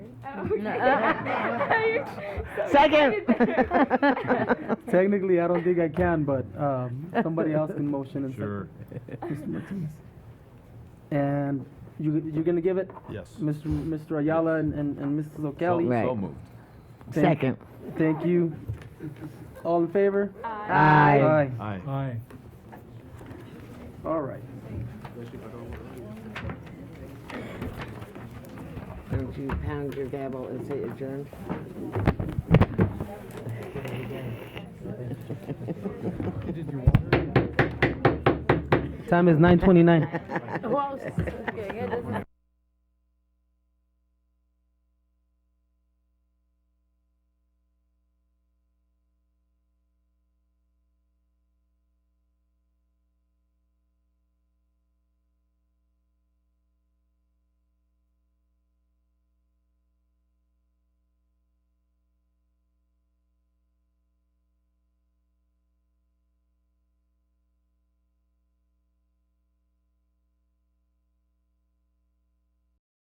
Second. Technically, I don't think I can, but um, somebody else can motion and Sure, second. Mr. Martinez. And you, you're gonna give it, yes. Mr. Mr. Ayala and, and, and Mrs. So O'Kelly? Right. so moved. Thank- Second. Thank you. All in favor? Aye. Aye. Aye. All right. Don't you pound your gavel and say adjourned? Time is nine twenty-nine. Who else is getting it? Doesn't-